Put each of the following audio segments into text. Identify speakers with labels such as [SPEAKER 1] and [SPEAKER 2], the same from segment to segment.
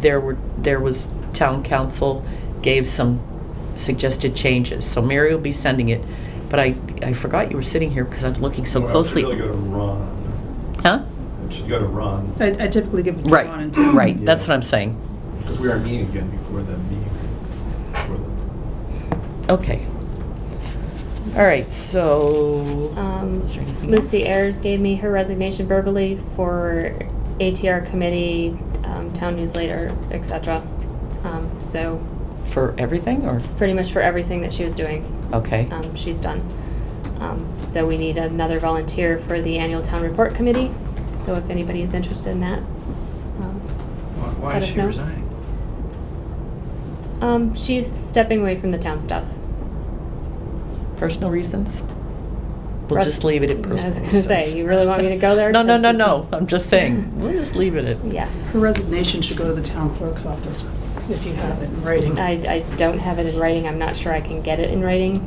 [SPEAKER 1] there were, there was, town council gave some suggested changes, so Mary will be sending it. But I, I forgot you were sitting here because I'm looking so
[SPEAKER 2] Well,
[SPEAKER 1] closely.
[SPEAKER 2] You really gotta run.
[SPEAKER 1] Huh?
[SPEAKER 2] You gotta run,
[SPEAKER 3] I I typically give it to Ron
[SPEAKER 1] Right,
[SPEAKER 3] and Tim.
[SPEAKER 1] right, that's
[SPEAKER 2] Yeah.
[SPEAKER 1] what I'm saying.
[SPEAKER 2] because we are meeting again before the meeting. before the-
[SPEAKER 1] Okay. All right, so.
[SPEAKER 4] Um,
[SPEAKER 1] Is there anything else?
[SPEAKER 4] Lucy Ayers gave me her resignation verbally for ATR committee, um, town newsletter, etc. Um, so
[SPEAKER 1] For everything, or,
[SPEAKER 4] pretty much for everything that she was doing,
[SPEAKER 1] okay,
[SPEAKER 4] um, she's done. Um, so we need another volunteer for the annual town report committee. So if anybody is interested in that, um,
[SPEAKER 5] Why- Why
[SPEAKER 4] Let
[SPEAKER 5] is
[SPEAKER 4] us
[SPEAKER 5] she
[SPEAKER 4] know.
[SPEAKER 5] resigning?
[SPEAKER 4] um, she's stepping away from the town stuff.
[SPEAKER 1] personal reasons? We'll
[SPEAKER 4] Rest-
[SPEAKER 1] just leave it at
[SPEAKER 4] I was
[SPEAKER 1] personal
[SPEAKER 4] gonna
[SPEAKER 1] reasons.
[SPEAKER 4] say, you really want me to go there?
[SPEAKER 1] No, no, no,
[SPEAKER 4] That's-
[SPEAKER 1] no, I'm just saying, we'll just leave it at.
[SPEAKER 4] Yeah,
[SPEAKER 3] Her resignation should go to the town clerk's office if you have it in writing.
[SPEAKER 4] I, I don't have it in writing. I'm not sure I can get it in writing.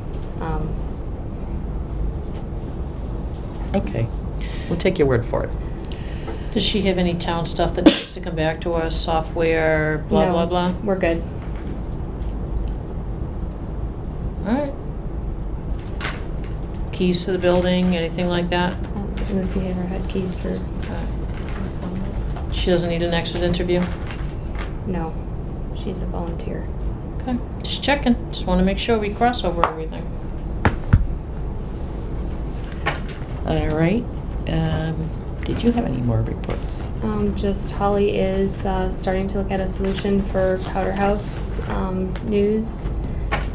[SPEAKER 4] Um,
[SPEAKER 1] Okay, we'll take your word for it.
[SPEAKER 6] Does she have any town stuff that needs to come back to us, software, blah,
[SPEAKER 4] no,
[SPEAKER 6] blah, blah?
[SPEAKER 4] We're good.
[SPEAKER 6] Alright. Keys to the building, anything like that?
[SPEAKER 4] Um, Lucy Haver had keys for,
[SPEAKER 6] Uh, She doesn't need an exit interview?
[SPEAKER 4] no, she's a volunteer.
[SPEAKER 6] Okay, just checking, just wanna make sure we cross over everything.
[SPEAKER 1] All right, um, did you have any more reports?
[SPEAKER 4] Um, just Holly is, uh, starting to look at a solution for Powder House, um, news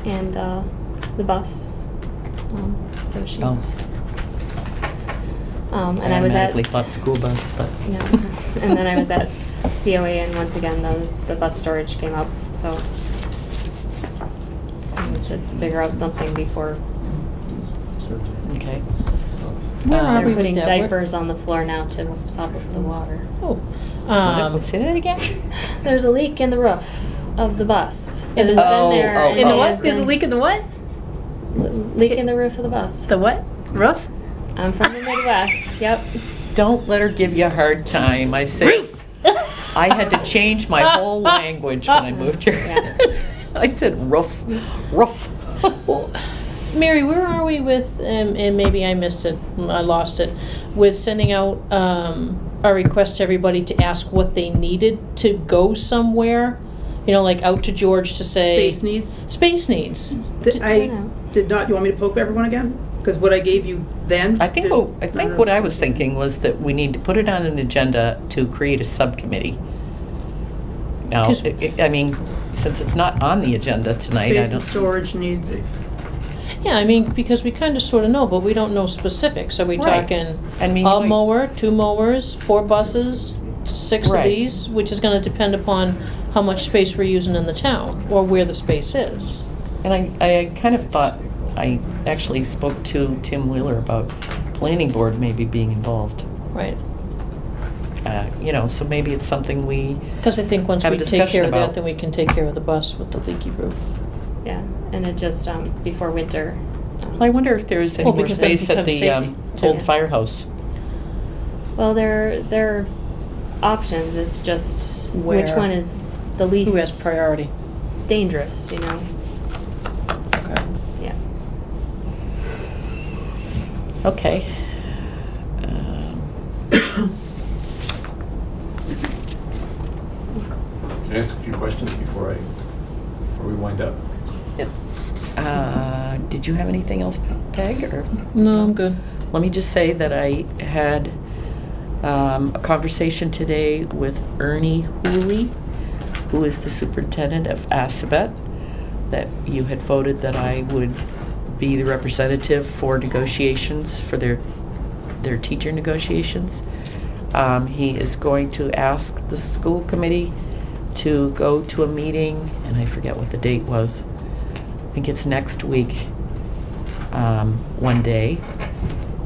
[SPEAKER 4] and, uh, the bus. Um, So
[SPEAKER 1] Oh.
[SPEAKER 4] she's, um, and I was at.
[SPEAKER 1] Automatically thought school bus, but.
[SPEAKER 4] No, and then I was at COA and once again, the, the bus storage came up, so. We should figure out something before
[SPEAKER 1] Okay.
[SPEAKER 6] Where
[SPEAKER 1] Um,
[SPEAKER 6] are we
[SPEAKER 4] They're
[SPEAKER 6] with
[SPEAKER 4] putting
[SPEAKER 6] Uh, that? Where-
[SPEAKER 4] diapers on the floor now to stop the water.
[SPEAKER 6] Oh,
[SPEAKER 1] What?
[SPEAKER 6] um,
[SPEAKER 1] Say that again?
[SPEAKER 4] There's a leak in the roof of the bus.
[SPEAKER 6] In the-
[SPEAKER 4] It has been
[SPEAKER 1] Oh,
[SPEAKER 4] there
[SPEAKER 1] oh,
[SPEAKER 6] in the
[SPEAKER 1] oh.
[SPEAKER 6] what? There's a leak in the what?
[SPEAKER 4] Leak in the roof of the bus.
[SPEAKER 6] The what? Roof?
[SPEAKER 4] I'm from the Midwest, yep.
[SPEAKER 1] Don't let her give you a hard time. I say, I had to change my whole language when I moved here.
[SPEAKER 4] Yeah.
[SPEAKER 1] I said roof, roof.
[SPEAKER 6] Well, Mary, where are we with, um, and maybe I missed it, I lost it, with sending out um, a request to everybody to ask what they needed to go somewhere? You know, like out to George to say.
[SPEAKER 3] Space needs.
[SPEAKER 6] Space needs.
[SPEAKER 3] Th-
[SPEAKER 4] I
[SPEAKER 3] I
[SPEAKER 4] know.
[SPEAKER 3] did not, you want me to poke everyone again? Because what I gave you then.
[SPEAKER 1] I think,
[SPEAKER 3] there's-
[SPEAKER 1] what- I think what I was thinking was that we need to put it on an agenda to create a subcommittee. Now,
[SPEAKER 6] 'Cause-
[SPEAKER 1] I- I mean, since it's not on the agenda tonight, I
[SPEAKER 3] Space and
[SPEAKER 1] don't.
[SPEAKER 3] storage needs.
[SPEAKER 6] Yeah, I mean, because we kind of sort of know, but we don't know specifics. Are we
[SPEAKER 1] Right.
[SPEAKER 6] talking
[SPEAKER 1] I mean,
[SPEAKER 6] a
[SPEAKER 1] like-
[SPEAKER 6] mower, two mowers, four buses, six of
[SPEAKER 1] Right.
[SPEAKER 6] these? Which is going to depend upon how much space we're using in the town or where the space is.
[SPEAKER 1] And I, I kind of thought, I actually spoke to Tim Wheeler about planning board maybe being involved.
[SPEAKER 6] Right.
[SPEAKER 1] Uh, You know, so maybe it's something we,
[SPEAKER 6] Because I think once
[SPEAKER 1] Have a
[SPEAKER 6] we take
[SPEAKER 1] discussion
[SPEAKER 6] care of
[SPEAKER 1] about-
[SPEAKER 6] that, then we can take care of the bus with the leaky roof.
[SPEAKER 4] Yeah, and it just, um, before winter. um,
[SPEAKER 1] well, I wonder if there is any
[SPEAKER 6] Well,
[SPEAKER 1] more
[SPEAKER 6] because that
[SPEAKER 1] space at
[SPEAKER 6] becomes
[SPEAKER 1] the um,
[SPEAKER 6] safety,
[SPEAKER 4] too.
[SPEAKER 1] old firehouse.
[SPEAKER 4] Well, there, there are options, it's just which
[SPEAKER 6] Where-
[SPEAKER 4] one is the least.
[SPEAKER 6] Who has priority?
[SPEAKER 4] Dangerous, you know,
[SPEAKER 6] Okay.
[SPEAKER 4] yeah.
[SPEAKER 1] Okay. Um,
[SPEAKER 2] Can I ask a few questions before I, before we wind up?
[SPEAKER 1] uh, Did you have anything else, Peg, or?
[SPEAKER 6] No, I'm good.
[SPEAKER 1] Let me just say that I had um, a conversation today with Ernie Hooley, who is the superintendent of Assabet, that you had voted that I would be the representative for negotiations for their their teacher negotiations. Um, he is going to ask the school committee to go to a meeting, and I forget what the date was. I think it's next week, um, one day,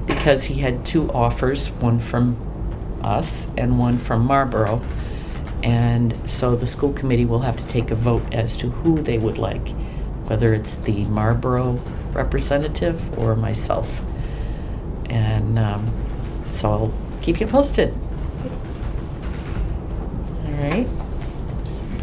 [SPEAKER 1] because he had two offers, one from us and one from Marlboro. And so the school committee will have to take a vote as to who they would like, whether it's the Marlboro representative or myself. And um, so I'll keep you posted. All right.